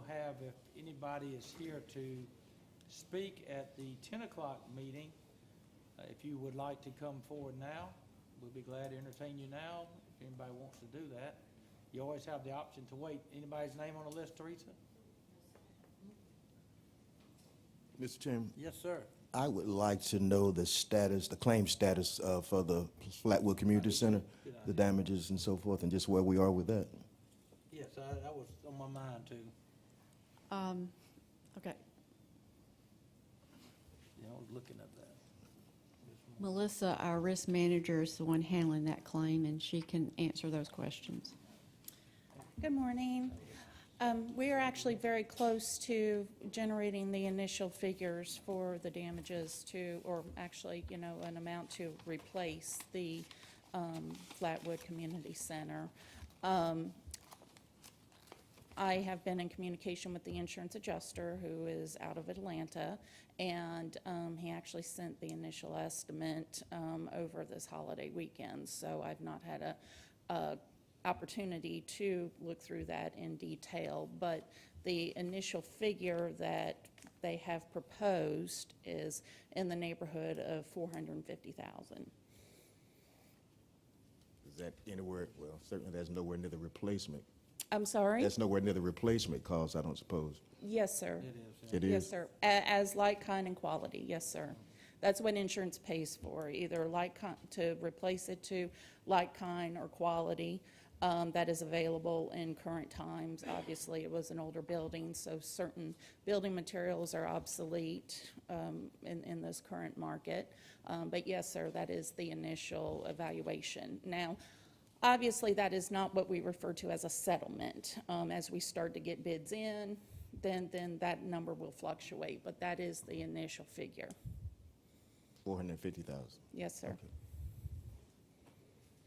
have, if anybody is here to speak at the 10 o'clock meeting, uh, if you would like to come forward now, we'll be glad to entertain you now, if anybody wants to do that. You always have the option to wait. Anybody's name on the list, Teresa? Mr. Chairman, Yes, sir. I would like to know the status, the claim status uh, for the Flatwood Community Center, the damages and so forth, and just where we are with that. Yes, I- that was on my mind, too. Um, Okay, Yeah, I was looking at that. Melissa, our risk manager, is the one handling that claim, and she can answer those questions. Good morning. Um, We are actually very close to generating the initial figures for the damages to, or actually, you know, an amount to replace the um, Flatwood Community Center. Um, I have been in communication with the insurance adjuster, who is out of Atlanta, and um, he actually sent the initial estimate um, over this holiday weekend, so I've not had a, a opportunity to look through that in detail, but the initial figure that they have proposed is in the neighborhood of four hundred and fifty thousand. Is that anywhere, well, certainly that's nowhere near the replacement. I'm sorry? That's nowhere near the replacement cost, I don't suppose. Yes, sir. It is, yeah. It Yes, is. sir. A- As like, kind, and quality, yes, sir. That's what insurance pays for, either like, kind to replace it to like, kind, or quality um, that is available in current times. Obviously, it was an older building, so certain building materials are obsolete um, in, in this current market. Um, But yes, sir, that is the initial evaluation. Now, Obviously, that is not what we refer to as a settlement. Um, As we start to get bids in, then, then that number will fluctuate, but that is the initial figure. Four hundred and fifty thousand. Yes, sir.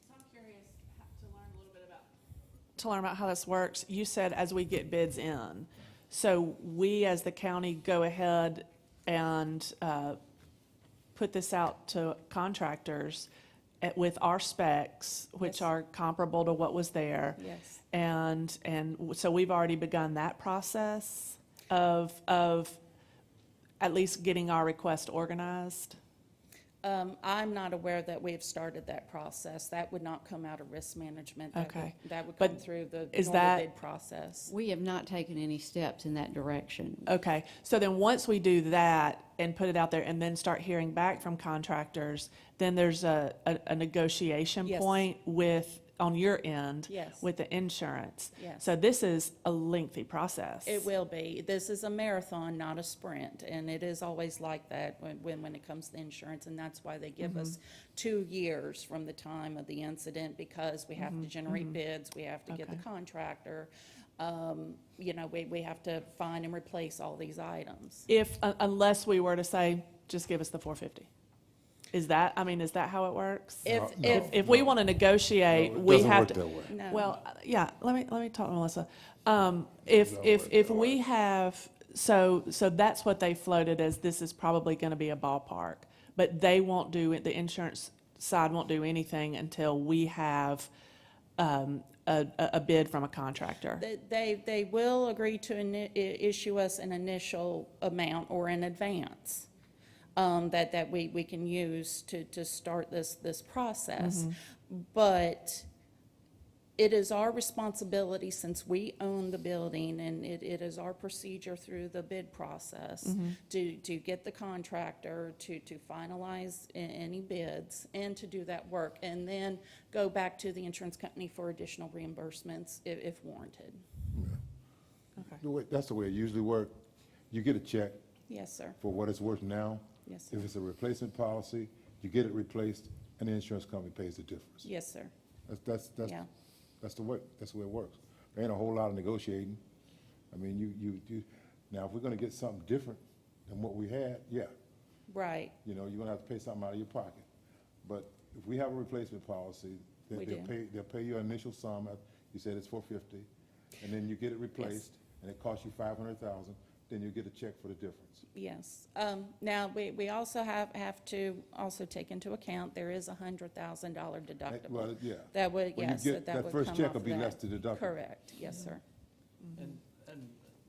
So I'm curious ho- to learn a little bit about. To learn about how this works, you said as we get bids in. So we, as the county, go ahead and uh, put this out to contractors at- with our specs, Yes. which are comparable to what was there. Yes. And, and w- so we've already begun that process of, of at least getting our request organized. Um, I'm not aware that we have started that process. That would not come out of risk management. That would- Okay. That would But come through the is normal that- bid process. We have not taken any steps in that direction. Okay, so then once we do that and put it out there and then start hearing back from contractors, then there's a, a, a negotiation Yes. point with, on your end. Yes. With the insurance. Yes. So this is a lengthy process. It will be. This is a marathon, not a sprint, and it is always like that when, when, when it comes to insurance, and that's why they give us Mm-hmm. two years from the time of the incident, because we have to generate bids, we have to get the Mm-hmm. Okay. contractor, um, you know, we, we have to find and replace all these items. If, un- unless we were to say, just give us the four fifty. Is that, I mean, is that how it works? If, no. if, If we want to negotiate, we Doesn't have work to. that way. no. Well, uh, yeah, let me, let me talk to Melissa. Um, if, if, if we have, so, so that's what they floated as this is probably gonna be a ballpark. But they won't do, it- the insurance side won't do anything until we have, um, a, a a bid from a contractor. They- They, they will agree to ini- i- issue us an initial amount or in advance um, that, that we, we can use to, to start this, this process. But it is our responsibility, since we own the building, and it, it is our procedure through the bid process to, to get the contractor to, to finalize a- any bids and to do that work, and then go back to the insurance company for additional reimbursements if, if warranted. The way- That's the way it usually works. You get a check Yes, sir. for what it's worth now. Yes. If it's a replacement policy, you get it replaced, and the insurance company pays the difference. Yes, sir. That's, that's, Yeah. that's, that's the way, that's the way it works. There ain't a whole lot of negotiating. I mean, you, you, you, now, if we're gonna get something different than what we had, yeah, Right. you know, you're gonna have to pay something out of your pocket. But if we have a replacement policy, then We they'll do. pay, they'll pay you an initial sum, uh, you said it's four fifty, and then you get it replaced, and it costs you five hundred thousand, then you get a check for the difference. Yes. Um, Now, we, we also have, have to also take into account, there is a hundred thousand dollar That- Well, deductible. yeah. That would, When you yes, that get- that would come off first check will be that. less the deductible. Correct, yes, sir. And